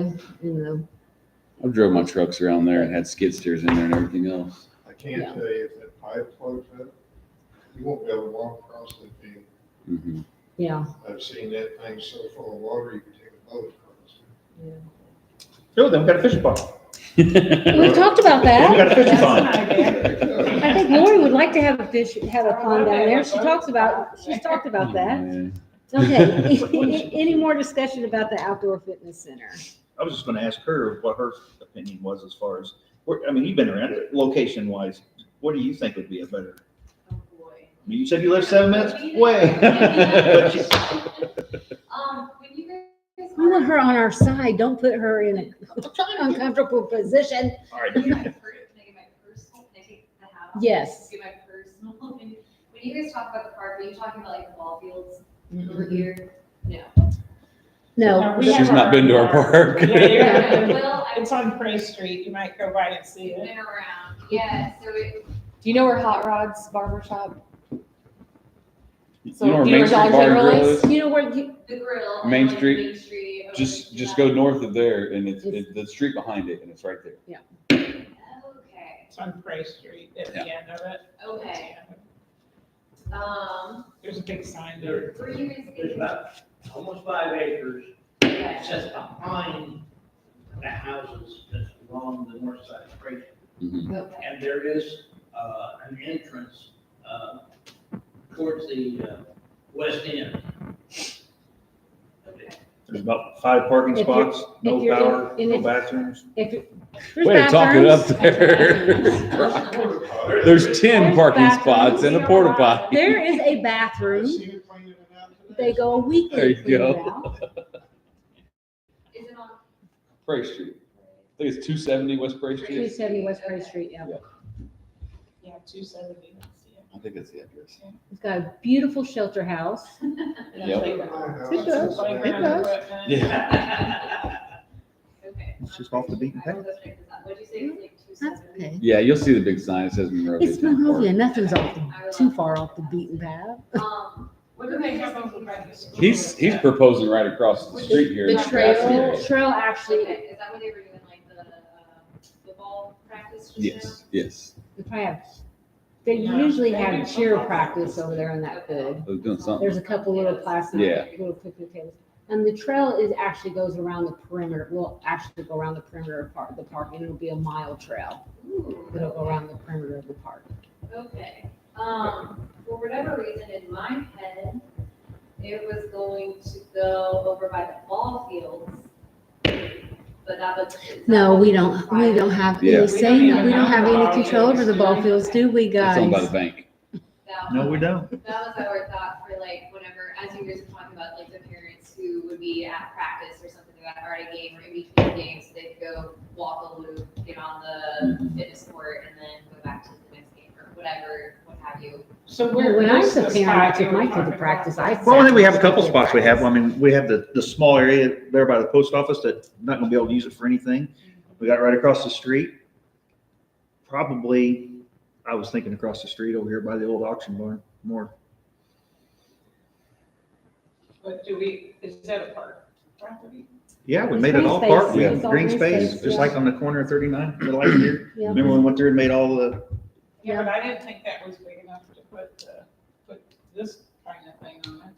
you know, I've drove my trucks around there and had skid steers in there and everything else. I can Yeah. not tell you if that pipe floats up, you won't be able to walk across that field. hmm yeah. I've seen that thing so full of water, you could take a boat across. No, then we got a fishing pond. We talked about Then we got that. a fishing That's pond. not a bad- I think Lori would like to have a fish, have a pond down there. She talks about, she's talked Oh, about that. Okay, any more discussion about the outdoor fitness center? I was just gonna ask her what her opinion was as far as, where, I mean, you've been around, location wise, what do you think would be a better? Oh, boy. I mean, You said you live seven minutes away. But you- Um, when you guys. We want her on our side. Don't put her in an uncomfortable position. All right. Can I get my per- can I get my personal, can I take the hat off? Yes. Get my personal, opinion? when you guys talk about the park, are you talking about like the ball fields over No, here? No. We have She's not been to our park. Yeah, yeah. Well, I It's on Prey Street, you might go by and see it. been around, yeah, so it, Do you know where Hot Rod's Barber Shop? You know where do you Main know Street Dollar General Bar and Grill is? is? You know where you, the grill. on, Main like, Street? Main Street. over Just, to just that. go north of there and it's, It's- it- the street behind it and it's right there. Okay, It's on Prey Street at the end of it. okay, um, There's a big sign there. were you guys There's thinking? about almost five acres okay. that's just behind the houses that's along the north side of Fraser. Okay, And there is, uh, an entrance, uh, towards the, uh, west end. There's about five parking If you're- spots, no if you're in- power, in no it- bathrooms. if you. there's Way to talk it up bathrooms. there. Porta potty. There's ten There's parking bathrooms. spots and a porta potty. There is a I've bathroom. seen it cleaning it out today. They go a There weekend you clean it go. out. is it on? Prairie Street. I think it's two seventy West Prairie Two Street. seventy West Prairie Street, yeah. Yeah, two seventy. I think that's the address. It's got a beautiful shelter house. Yep. It does, it does. Okay. It's just off the beaten I will go check this out. What'd you say, it was like two That's seventy? okay. Yeah, you'll see the big sign. It says Monrovia. It's Town Park. Monrovia. Nothing's off the, too far off the beaten path. Um, what do they have on the? He's, he's proposing right across the street here. The in trail, Jackson. trail actually, Okay, is that what they were doing, like the, uh, football practice just now? Yes, yes. they probably have, they usually have cheer practice over there on that hood. I was doing something. There's a couple little plastic, Yeah. little picnic tables. And the trail is, actually goes around the perimeter, will actually go around the perimeter of part, the park, and it'll be a mile trail. It'll go Ooh, around the perimeter of the park. okay, um, for whatever reason, in my head, it was going to go over by the ball fields. But that was. is that No, what we you don't, we decided? don't have Yeah. any say, we don't have any control over the ball fields, do we, It's owned by the guys? bank. That No, was- we don't. That was our thought for like whenever, as you guys were talking about, like the parents who would be at practice or something like that, or at a game or in between games, they could go walk a loop, get on the Mhm. fitness court and then go back to the next game or whatever, what have you. So where. When I was a where's the parent, I spot took you were my kid to talking practice, about? I. Well, I think we have a sat couple with spots we practice. have. I mean, we have the, the small area there by the post office that I'm not gonna be able to use it for anything. We got right across the street. Probably, I was thinking across the street over here by the old auction barn more. But do we, is that a park property? Yeah, we It's made it green all park. space. We It's have all green green space, space, just yeah. like on the corner of thirty-nine, the light here. Yeah. Remember when we went through and made all the Yeah, but I didn't think that was big enough to put, uh, put this kind of thing on it.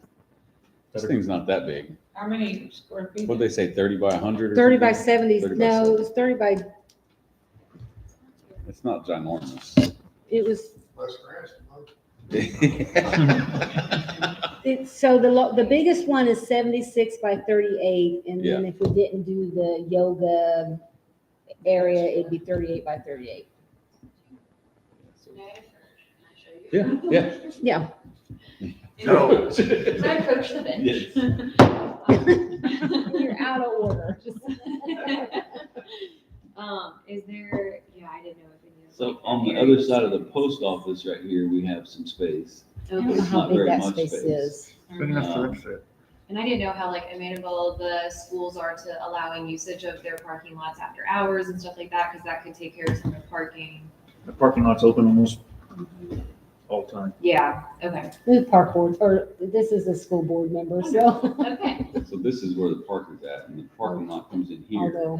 This thing's not that big. How many square feet? What'd they say, thirty by hundred or Thirty by something? seventy, 30 by no, 70. it was thirty by, It's not ginormous. it was, Less grass than most. it, so the, lo- the biggest one is seventy-six by thirty-eight, and then if we didn't do the yoga area, it'd be thirty-eight by thirty-eight. Can I- can I show you? Yeah, yeah. Yeah. No. Can I approach the bench? You're out of order. Um, is there, yeah, I didn't know if any of. So on the other side of the post office right here, we have some space. I don't know It's how not big very that much space space. is. Big enough for us to- And I didn't know how like amenable the schools are to allowing usage of their parking lots after hours and stuff like that, because that could take care of some of the parking. The parking lot's open almost all the time. Yeah, okay, The park board, or this is a school board member, so. okay. So this is where the park is at and the parking lot comes in here. Although